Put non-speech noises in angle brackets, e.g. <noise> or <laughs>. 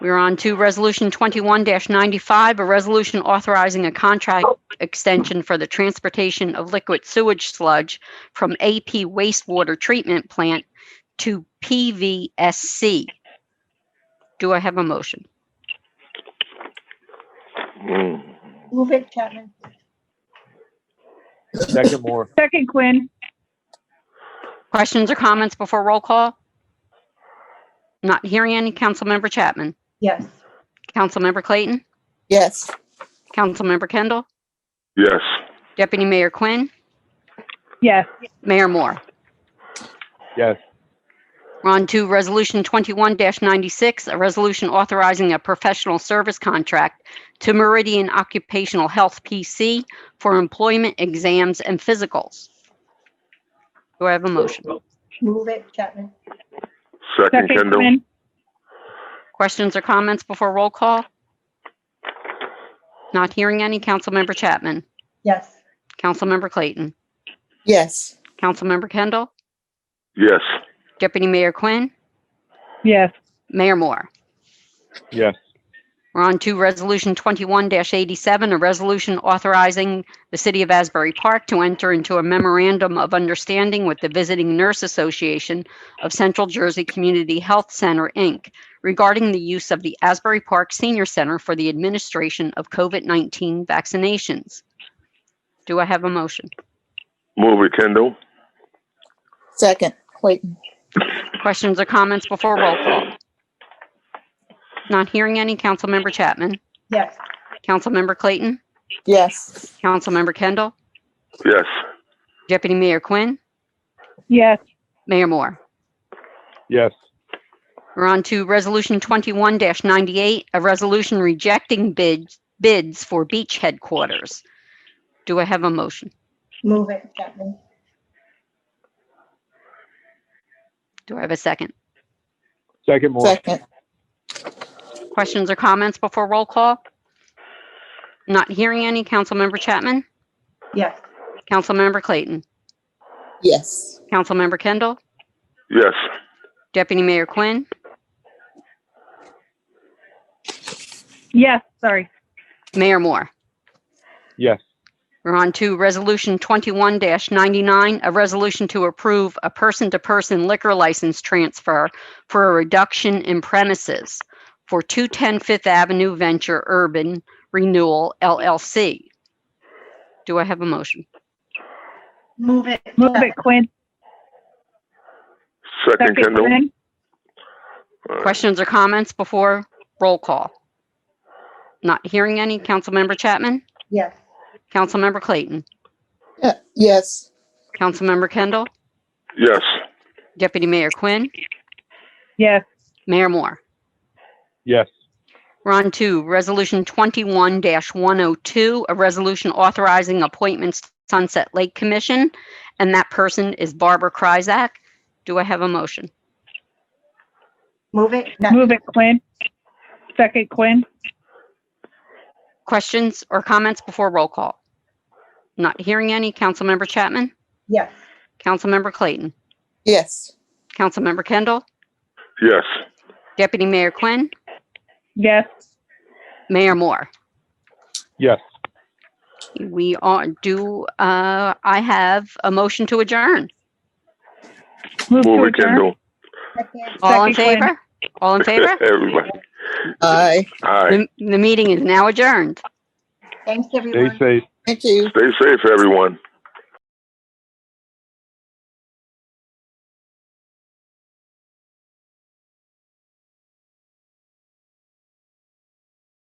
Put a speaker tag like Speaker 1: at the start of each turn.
Speaker 1: We're on to Resolution 21-95, a resolution authorizing a contract extension for the transportation of liquid sewage sludge from AP wastewater treatment plant to PVSC. Do I have a motion?
Speaker 2: Mm.
Speaker 3: Move it, Chapman.
Speaker 4: Second Moore.
Speaker 5: Second Quinn.
Speaker 1: Questions or comments before roll call? Not hearing any. Councilmember Chapman?
Speaker 3: Yes.
Speaker 1: Councilmember Clayton?
Speaker 6: yes,
Speaker 1: Councilmember Kendall?
Speaker 2: Yes.
Speaker 1: Deputy Mayor Quinn?
Speaker 5: Yes.
Speaker 1: Mayor Moore?
Speaker 4: Yes.
Speaker 1: We're on to Resolution 21-96, a resolution authorizing a professional service contract to Meridian Occupational Health PC for employment exams and physicals. Do I have a motion?
Speaker 3: Move it, Chapman.
Speaker 2: Second
Speaker 5: Second
Speaker 2: Kendall?
Speaker 5: Quinn.
Speaker 1: Questions or comments before roll call? Not hearing any. Councilmember Chapman.
Speaker 3: Yes.
Speaker 1: Councilmember Clayton.
Speaker 6: yes,
Speaker 1: Councilmember Kendall.
Speaker 2: Yes.
Speaker 1: Deputy Mayor Quinn.
Speaker 5: Yes.
Speaker 1: Mayor Moore.
Speaker 4: Yes.
Speaker 1: We're on to Resolution 21-87, a resolution authorizing the City of Asbury Park to enter into a memorandum of understanding with the Visiting Nurse Association of Central Jersey Community Health Center, Inc., regarding the use of the Asbury Park Senior Center for the administration of COVID-19 vaccinations. Do I have a motion?
Speaker 2: Move it Kendall?
Speaker 6: second, Clayton,
Speaker 1: Questions or comments before roll call? Not hearing any. Councilmember Chapman?
Speaker 3: Yes.
Speaker 1: Councilmember Clayton?
Speaker 6: yes,
Speaker 1: Councilmember Kendall?
Speaker 2: Yes.
Speaker 1: Deputy Mayor Quinn?
Speaker 5: Yes.
Speaker 1: Mayor Moore?
Speaker 4: Yes.
Speaker 1: We're on to Resolution 21-98, a resolution rejecting bids, bids for beach headquarters. Do I have a motion?
Speaker 3: Move it, Chapman.
Speaker 1: Do I have a second?
Speaker 4: Second Moore.
Speaker 6: second,
Speaker 1: Questions or comments before roll call? Not hearing any. Councilmember Chapman?
Speaker 3: Yes.
Speaker 1: Councilmember Clayton?
Speaker 6: yes,
Speaker 1: Councilmember Kendall?
Speaker 2: Yes.
Speaker 1: Deputy Mayor Quinn?
Speaker 5: Yes. Sorry.
Speaker 1: Mayor Moore?
Speaker 4: Yes.
Speaker 1: We're on to Resolution 21-99, a resolution to approve a person-to-person liquor license transfer for a reduction in premises for 210 Fifth Avenue Venture Urban Renewal LLC. Do I have a motion?
Speaker 3: Move it.
Speaker 5: Move
Speaker 3: Chapman.
Speaker 5: it Quinn.
Speaker 2: Second
Speaker 5: Second
Speaker 2: Kendall?
Speaker 5: Quinn.
Speaker 2: All right.
Speaker 1: Questions or comments before roll call? Not hearing any. Councilmember Chapman?
Speaker 3: Yes.
Speaker 1: Councilmember Clayton?
Speaker 6: yeah, yes,
Speaker 1: Councilmember Kendall?
Speaker 2: Yes.
Speaker 1: Deputy Mayor Quinn?
Speaker 5: Yes.
Speaker 1: Mayor Moore?
Speaker 4: Yes.
Speaker 1: We're on to Resolution 21-102, a resolution authorizing appointments to Sunset Lake Commission, and that person is Barbara Kryzak. Do I have a motion?
Speaker 3: Move it. Chapman.
Speaker 5: Move it Quinn. Second Quinn.
Speaker 1: Questions or comments before roll call? Not hearing any. Councilmember Chapman?
Speaker 3: Yes.
Speaker 1: Councilmember Clayton?
Speaker 6: yes,
Speaker 1: Councilmember Kendall?
Speaker 2: Yes.
Speaker 1: Deputy Mayor Quinn?
Speaker 5: Yes.
Speaker 1: Mayor Moore?
Speaker 4: Yes.
Speaker 1: We are, do, uh, I have a motion to adjourn?
Speaker 5: Move to
Speaker 2: Move it
Speaker 5: adjourn.
Speaker 2: Kendall?
Speaker 3: Second.
Speaker 1: All in
Speaker 5: Second, Quinn.
Speaker 1: favor? All in
Speaker 2: <laughs>
Speaker 1: favor?
Speaker 2: Everybody.
Speaker 6: aye,
Speaker 2: All right.
Speaker 1: The the meeting is now adjourned.
Speaker 3: Thanks,
Speaker 4: Stay
Speaker 3: everyone.
Speaker 4: safe.
Speaker 6: thank you.
Speaker 2: Stay safe, everyone.